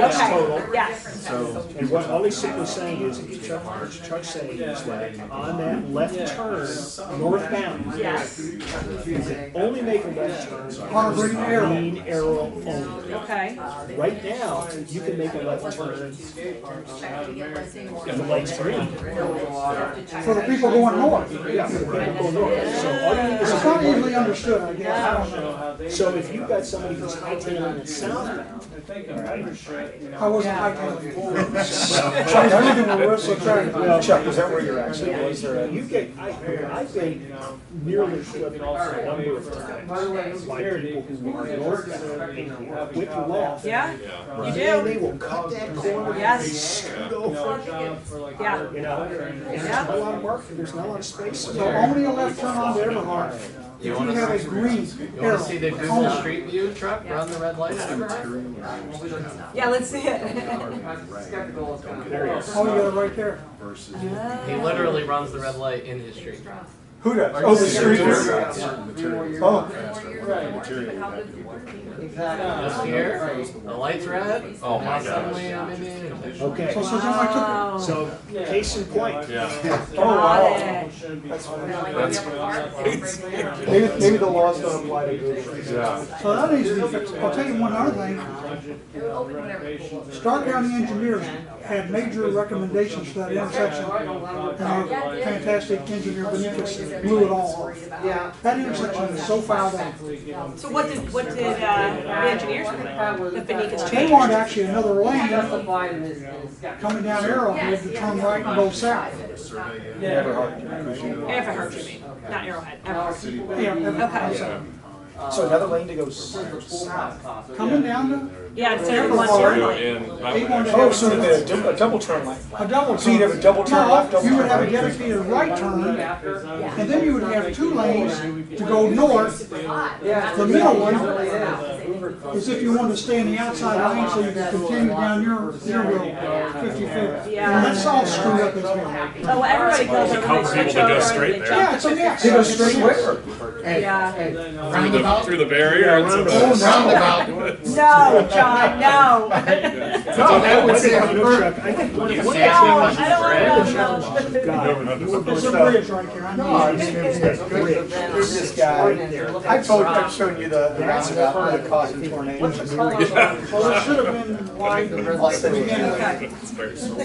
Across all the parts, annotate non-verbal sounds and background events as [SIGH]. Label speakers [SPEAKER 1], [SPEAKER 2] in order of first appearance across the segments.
[SPEAKER 1] Okay,
[SPEAKER 2] total.
[SPEAKER 1] yes.
[SPEAKER 3] So,
[SPEAKER 2] And what Ollie Sick was saying is, Chuck, Chuck's saying is that on that left turn, northbound,
[SPEAKER 1] Yes.
[SPEAKER 2] you can only make a left turn on
[SPEAKER 4] Harvard Arrow.
[SPEAKER 2] green arrow only.
[SPEAKER 1] Okay.
[SPEAKER 2] Right now, you can make a left turn, the light's green.
[SPEAKER 4] for the people going north.
[SPEAKER 2] Yeah, for the people north. So all you need is a
[SPEAKER 4] It's not easily understood, I guess, I don't know.
[SPEAKER 2] So if you've got somebody who's hightailing it southbound,
[SPEAKER 4] I wasn't
[SPEAKER 2] [LAUGHS]
[SPEAKER 4] hightailing it. Chuck, I live in a rural area.
[SPEAKER 2] Well,
[SPEAKER 5] Chuck, was that where your
[SPEAKER 2] so
[SPEAKER 5] accident was? or-
[SPEAKER 2] you get, I, I've been nearly flipped off a number of times by people who are northbound and whip left.
[SPEAKER 1] Yeah, you
[SPEAKER 2] And
[SPEAKER 1] do.
[SPEAKER 2] they will cut that corner.
[SPEAKER 1] Yes.
[SPEAKER 2] They scoot over,
[SPEAKER 1] Yeah.
[SPEAKER 2] you know, and there's not a lot of market, there's not a lot of space.
[SPEAKER 4] So only a left turn on Everhard, if you
[SPEAKER 6] wanna
[SPEAKER 4] have a
[SPEAKER 6] see-
[SPEAKER 4] green
[SPEAKER 6] You
[SPEAKER 4] arrow.
[SPEAKER 6] wanna see the Google
[SPEAKER 4] only.
[SPEAKER 6] Street View truck run the red light?
[SPEAKER 1] Yeah, let's see it.
[SPEAKER 2] There is.
[SPEAKER 4] Oh, you got it right there.
[SPEAKER 5] Versus.
[SPEAKER 6] He literally runs the red light in his street.
[SPEAKER 4] Who does? Oh, the street.
[SPEAKER 5] Certain materials.
[SPEAKER 4] Oh.
[SPEAKER 6] This year, the light's red.
[SPEAKER 7] Oh my
[SPEAKER 6] now
[SPEAKER 7] gosh.
[SPEAKER 6] Suddenly I'm in the intersection.
[SPEAKER 2] Okay,
[SPEAKER 4] So, so someone took it.
[SPEAKER 2] so case in point.
[SPEAKER 5] Oh,
[SPEAKER 1] Got it.
[SPEAKER 5] Maybe, maybe the laws don't apply to Google.
[SPEAKER 7] Yeah.
[SPEAKER 4] So that needs to be fixed. I'll tell you one other thing. Stark County engineers had major recommendations for that intersection. And our fantastic engineer Benitez blew it all off.
[SPEAKER 8] Yeah.
[SPEAKER 4] That intersection is so fouled up.
[SPEAKER 1] So what did, what did, uh, the engineers, the Benicas
[SPEAKER 4] They
[SPEAKER 1] change?
[SPEAKER 4] wanted actually another lane coming down Arrowhead to turn right and go south.
[SPEAKER 5] Never hard. because you know-
[SPEAKER 1] Everhard, you mean, not Arrowhead, Everhard.
[SPEAKER 5] City.
[SPEAKER 4] Yeah,
[SPEAKER 1] Okay.
[SPEAKER 4] Everhard.
[SPEAKER 5] So another lane to go south.
[SPEAKER 4] Coming down the,
[SPEAKER 1] Yeah, instead of one turn
[SPEAKER 7] So,
[SPEAKER 1] lane.
[SPEAKER 7] and I would actually-
[SPEAKER 5] Oh, so the dou- a double turn lane.
[SPEAKER 4] a double turn.
[SPEAKER 5] So you'd have a double turn left,
[SPEAKER 4] No,
[SPEAKER 5] double
[SPEAKER 4] you would
[SPEAKER 5] turn
[SPEAKER 4] have a
[SPEAKER 5] right.
[SPEAKER 4] dedicated right turn, and then you would have two lanes to go north,
[SPEAKER 8] The middle one.
[SPEAKER 4] as if you wanted to stay in the outside lane so you could continue down your, your road, fifty-fifth.
[SPEAKER 1] Yeah.
[SPEAKER 4] And that's all screwed up as well.
[SPEAKER 1] Oh, well, everybody
[SPEAKER 7] There's
[SPEAKER 1] goes
[SPEAKER 7] a
[SPEAKER 1] over,
[SPEAKER 7] couple
[SPEAKER 1] they
[SPEAKER 7] people
[SPEAKER 1] switch
[SPEAKER 7] that go
[SPEAKER 1] over,
[SPEAKER 7] straight
[SPEAKER 1] and they
[SPEAKER 7] there.
[SPEAKER 4] Yeah,
[SPEAKER 1] jump.
[SPEAKER 4] it's a mess.
[SPEAKER 5] They go straight where?
[SPEAKER 1] Yeah.
[SPEAKER 7] Through the, through the barrier. it's a-
[SPEAKER 5] Oh,
[SPEAKER 6] Roundabout.
[SPEAKER 1] No, John, no.
[SPEAKER 2] No,
[SPEAKER 6] that would say
[SPEAKER 2] You know, Chuck, I think one of
[SPEAKER 6] You
[SPEAKER 2] the
[SPEAKER 6] say it's
[SPEAKER 1] No,
[SPEAKER 6] because
[SPEAKER 1] I don't wanna
[SPEAKER 6] it's
[SPEAKER 1] know.
[SPEAKER 2] challenges you've got, you were
[SPEAKER 4] There's
[SPEAKER 2] going
[SPEAKER 4] a
[SPEAKER 2] to
[SPEAKER 4] bridge right there. I
[SPEAKER 5] No, I
[SPEAKER 4] know.
[SPEAKER 5] mean, it was that bridge. There's this guy. I
[SPEAKER 8] I
[SPEAKER 5] told, I've shown you the the roundabout that caused the tornado.
[SPEAKER 4] What's the color? Well, it should have been wide.
[SPEAKER 5] The red light's
[SPEAKER 4] Again,
[SPEAKER 5] there.
[SPEAKER 1] Okay.
[SPEAKER 7] It's very small.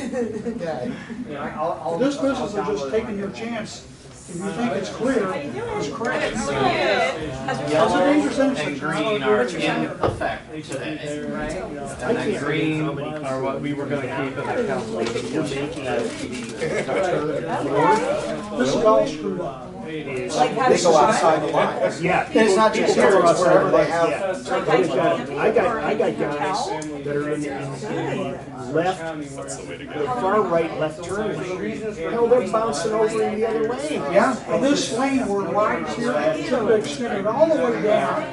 [SPEAKER 4] This business is just taking your chance, if you think it's clear, it's correct.
[SPEAKER 1] It's good.
[SPEAKER 4] It's a
[SPEAKER 6] Yellow
[SPEAKER 4] dangerous
[SPEAKER 6] and
[SPEAKER 4] intersection.
[SPEAKER 6] green are in effect today. And then green are what we were gonna keep in the council.
[SPEAKER 4] This is all screwed up.
[SPEAKER 2] is,
[SPEAKER 1] Like how
[SPEAKER 5] They
[SPEAKER 1] does
[SPEAKER 5] go outside the
[SPEAKER 1] it?
[SPEAKER 5] lines.
[SPEAKER 2] yeah.
[SPEAKER 5] And it's not just here, it's wherever they have.
[SPEAKER 2] Yeah.
[SPEAKER 1] Like how
[SPEAKER 2] I've
[SPEAKER 1] you
[SPEAKER 2] got, I got, I got
[SPEAKER 1] Towel?
[SPEAKER 2] guys that are in the, in the left,
[SPEAKER 7] That's the way to
[SPEAKER 2] the
[SPEAKER 7] go.
[SPEAKER 2] far right left turn lane. Hell, they're bouncing over in the other lane.
[SPEAKER 4] Yeah, and this lane were right here, it should have extended all the way down.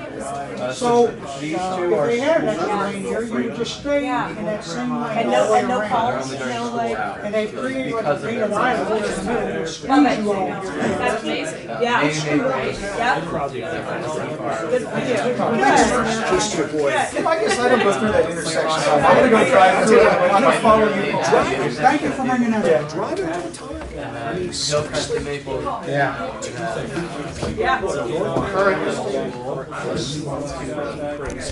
[SPEAKER 4] So,
[SPEAKER 6] These two
[SPEAKER 4] if
[SPEAKER 6] are.
[SPEAKER 4] they had an extra lane here, you would just stay in that same lane.
[SPEAKER 1] And
[SPEAKER 4] all the
[SPEAKER 1] no,
[SPEAKER 4] way
[SPEAKER 1] and no
[SPEAKER 4] around.
[SPEAKER 1] calls, no like.
[SPEAKER 4] And they created like a
[SPEAKER 6] Because of
[SPEAKER 4] big
[SPEAKER 6] their-
[SPEAKER 4] island in the middle, and squeeze
[SPEAKER 1] Love it.
[SPEAKER 4] you all.
[SPEAKER 1] That's amazing. Yeah.
[SPEAKER 6] They- they- they-
[SPEAKER 1] Yep. Good for you.
[SPEAKER 2] Just to avoid.
[SPEAKER 1] Good.
[SPEAKER 5] I guess I don't go through that intersection. I'm gonna go drive through it. I'm gonna follow you.
[SPEAKER 4] Thank you for bringing that up.
[SPEAKER 2] Driving all the time. I mean, so-
[SPEAKER 6] Hillcrest and uh, Maple. uh,
[SPEAKER 5] Yeah.
[SPEAKER 1] Yeah.
[SPEAKER 6] Currently,